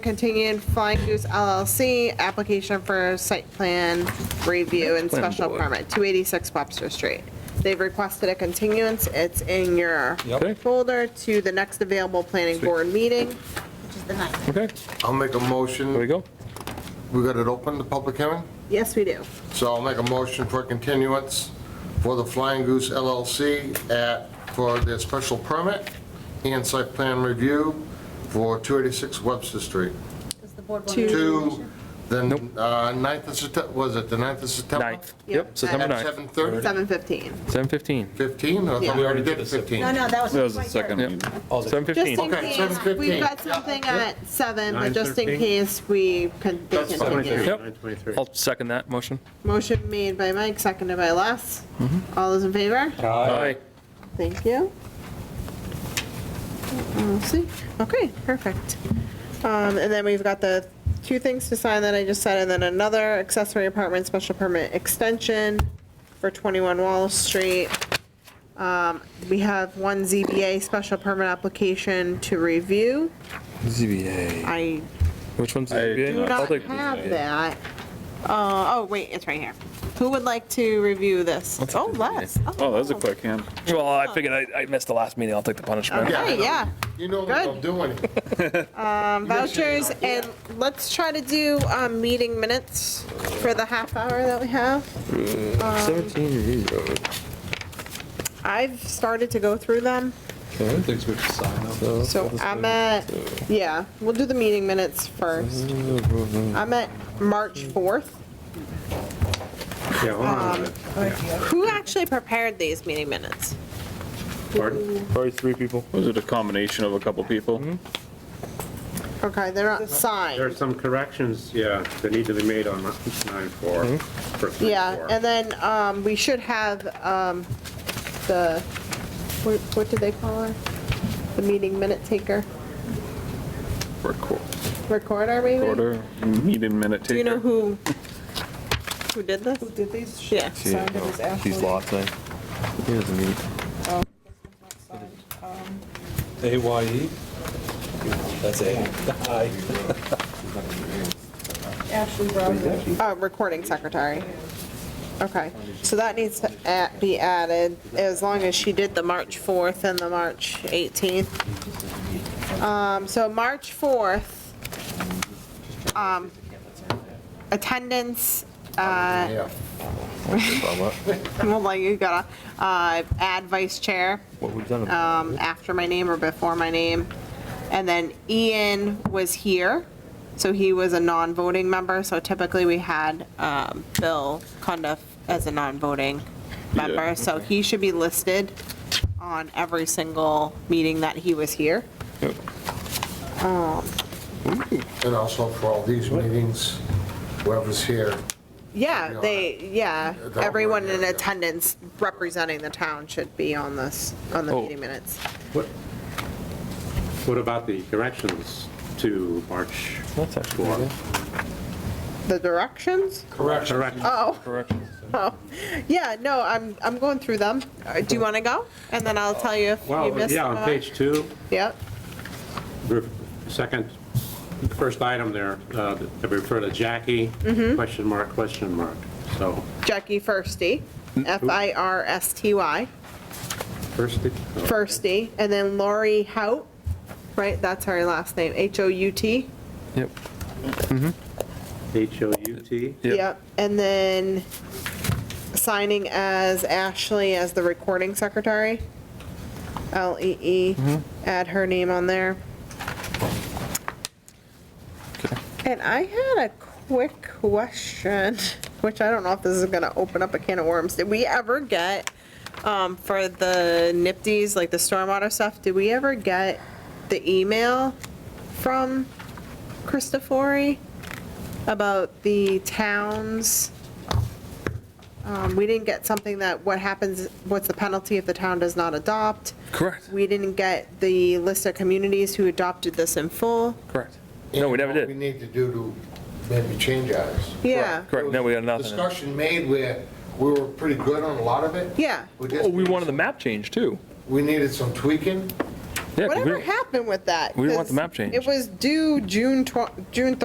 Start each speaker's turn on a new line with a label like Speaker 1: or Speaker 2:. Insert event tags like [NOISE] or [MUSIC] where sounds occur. Speaker 1: Continued Flying Goose LLC, application for site plan review and
Speaker 2: Plan
Speaker 1: special
Speaker 2: board.
Speaker 1: permit, 286 Webster Street. They've requested a continuance. It's in your
Speaker 2: Yep. Okay.
Speaker 1: folder to the next available planning
Speaker 2: Sweet.
Speaker 1: board meeting.
Speaker 2: Okay,
Speaker 3: I'll make a motion.
Speaker 2: there we go.
Speaker 3: We got it open, the public hearing?
Speaker 1: Yes, we do.
Speaker 3: So I'll make a motion for continuance for the Flying Goose LLC at, for their special permit and site plan review for 286 Webster Street.
Speaker 4: Does the board want
Speaker 1: Two.
Speaker 3: To the
Speaker 2: Nope.
Speaker 3: uh, 9th of September, was it the 9th of September?
Speaker 2: Ninth,
Speaker 1: Yep.
Speaker 2: yep, September
Speaker 3: At
Speaker 2: 9th,
Speaker 3: 7:30,
Speaker 1: 7:15.
Speaker 2: 7:15.
Speaker 3: 15? I
Speaker 1: Yeah.
Speaker 3: thought we already did 15.
Speaker 4: No, no, that was.
Speaker 5: That was the
Speaker 4: right there.
Speaker 5: second
Speaker 2: Yep.
Speaker 5: meeting.
Speaker 1: Just in
Speaker 2: 7:15.
Speaker 3: Okay,
Speaker 1: case,
Speaker 3: 7:15.
Speaker 1: we've got something at 7, but just in
Speaker 6: 9:15.
Speaker 1: case we can, they
Speaker 3: That's fine.
Speaker 1: continue.
Speaker 2: Yep.
Speaker 6: 9:23.
Speaker 2: I'll second that motion.
Speaker 1: Motion made by Mike, seconded by Les. All those in favor?
Speaker 2: Aye.
Speaker 1: Thank you. We'll see. Okay, perfect. Um, And then we've got the two things to sign that I just said, and then another accessory apartment special permit extension for 21 Wall Street. Um, We have one ZBA special permit application to review.
Speaker 5: ZBA.
Speaker 1: I
Speaker 2: Which one's?
Speaker 5: I do
Speaker 1: do
Speaker 2: ZBA? I'll
Speaker 1: not
Speaker 2: take-
Speaker 1: have that. Uh, Oh, wait, it's right here. Who would like to review this?
Speaker 2: I'll take
Speaker 1: Oh,
Speaker 2: the ZBA.
Speaker 1: Les.
Speaker 5: Oh, that was a quick hand.
Speaker 2: Well, I figured I I missed the last meeting, I'll take the punishment.
Speaker 3: Yeah, I
Speaker 1: Okay,
Speaker 3: know.
Speaker 1: yeah.
Speaker 3: You know what I'm doing.
Speaker 1: Um, Vouchers, and let's try to do um, meeting minutes for the half hour that we have. Um,
Speaker 5: 17 Reed Road.
Speaker 1: I've started to go through them,
Speaker 5: Things we should sign up.
Speaker 1: so I'm at, yeah, we'll do the meeting minutes first. I'm at March 4th.
Speaker 6: Yeah, hold on
Speaker 1: Um,
Speaker 6: a minute.
Speaker 1: Who actually prepared these meeting minutes?
Speaker 6: Pardon?
Speaker 2: Probably three people.
Speaker 5: Was it a combination of a couple people?
Speaker 1: Okay, they're not
Speaker 6: There are
Speaker 1: signed.
Speaker 6: some corrections, yeah, that need to be made on 9-4,
Speaker 2: Mm-hmm.
Speaker 6: for 3-4.
Speaker 1: Yeah, and then um, we should have um, the, what what do they call her? The meeting minute taker,
Speaker 5: Record-
Speaker 1: recorder maybe?
Speaker 5: Recorder, meeting minute taker.
Speaker 1: Do you know who, who did this? Who did these? Yeah.
Speaker 5: These lots, eh? Here's the meat.
Speaker 7: AYE? That's A. Aye.
Speaker 1: Uh, recording secretary. Okay, so that needs to a- be added, as long as she did the March 4th and the March 18th. Um, so March 4th, um, attendance, uh, [LAUGHS]
Speaker 3: Yeah.
Speaker 1: well, like you gotta, uh, add vice chair.
Speaker 5: What we've done.
Speaker 1: um, after my name or before my name. And then Ian was here, so he was a non-voting member, so typically we had um, Bill Cundiff as a non-voting member,
Speaker 5: Yeah.
Speaker 1: so he should be listed on every single meeting that he was here.
Speaker 3: And also for all these meetings, whoever's here,
Speaker 1: Yeah, they, yeah,
Speaker 3: They're all
Speaker 1: everyone
Speaker 3: voting,
Speaker 1: in
Speaker 3: yeah.
Speaker 1: attendance representing the town should be on this, on the
Speaker 2: Oh.
Speaker 1: meeting minutes.
Speaker 6: What- What about the corrections to March
Speaker 2: That's actually
Speaker 6: 4?
Speaker 2: good.
Speaker 1: The directions?
Speaker 6: Correct.
Speaker 1: Oh.
Speaker 2: Corrections.
Speaker 1: Oh, yeah, no, I'm, I'm going through them. Uh, Do you want to go? And then I'll tell you if you
Speaker 6: Well,
Speaker 1: missed.
Speaker 6: yeah, on
Speaker 1: one.
Speaker 6: page 2,
Speaker 1: Yep,
Speaker 6: re- second, first item there, uh, that refer to Jackie,
Speaker 1: Mm-hmm.
Speaker 6: question mark, question mark. So,
Speaker 1: Jackie Firsty,
Speaker 6: Mm-hmm.
Speaker 1: F-I-R-S-T-Y,
Speaker 6: first, oh,
Speaker 1: Firsty, and then Lori Hout, right, that's her last name, H-O-U-T.
Speaker 2: Yep.
Speaker 6: H-O-U-T,
Speaker 2: Yep.
Speaker 1: And then signing as Ashley as the recording secretary, L-E-E, add her name on there.
Speaker 2: Okay.
Speaker 1: And I had a quick question, which I don't know if this is gonna open up a can of worms. Did we ever get, um, for the NIPD's, like the stormwater stuff, did we ever get the email from Christofori about the towns? Um, we didn't get something that, what happens, what's the penalty if the town does not adopt?
Speaker 2: Correct,
Speaker 1: We didn't get the list of communities who adopted this in full.
Speaker 2: correct. No, we never
Speaker 3: what We
Speaker 2: did.
Speaker 3: need to do to maybe change ours.
Speaker 1: Yeah.
Speaker 2: Correct, no, we got nothing.
Speaker 3: Discussion made where we were pretty good on a lot of it.
Speaker 1: Yeah.
Speaker 3: We just
Speaker 2: Oh, we
Speaker 3: needed
Speaker 2: wanted the
Speaker 3: some-
Speaker 2: map change too.
Speaker 3: We needed some tweaking.
Speaker 2: Yeah, 'cause we
Speaker 1: Whatever
Speaker 2: don't-
Speaker 1: happened with that?
Speaker 2: we don't want
Speaker 1: 'Cause
Speaker 2: the map changed.
Speaker 1: It was due June tw- June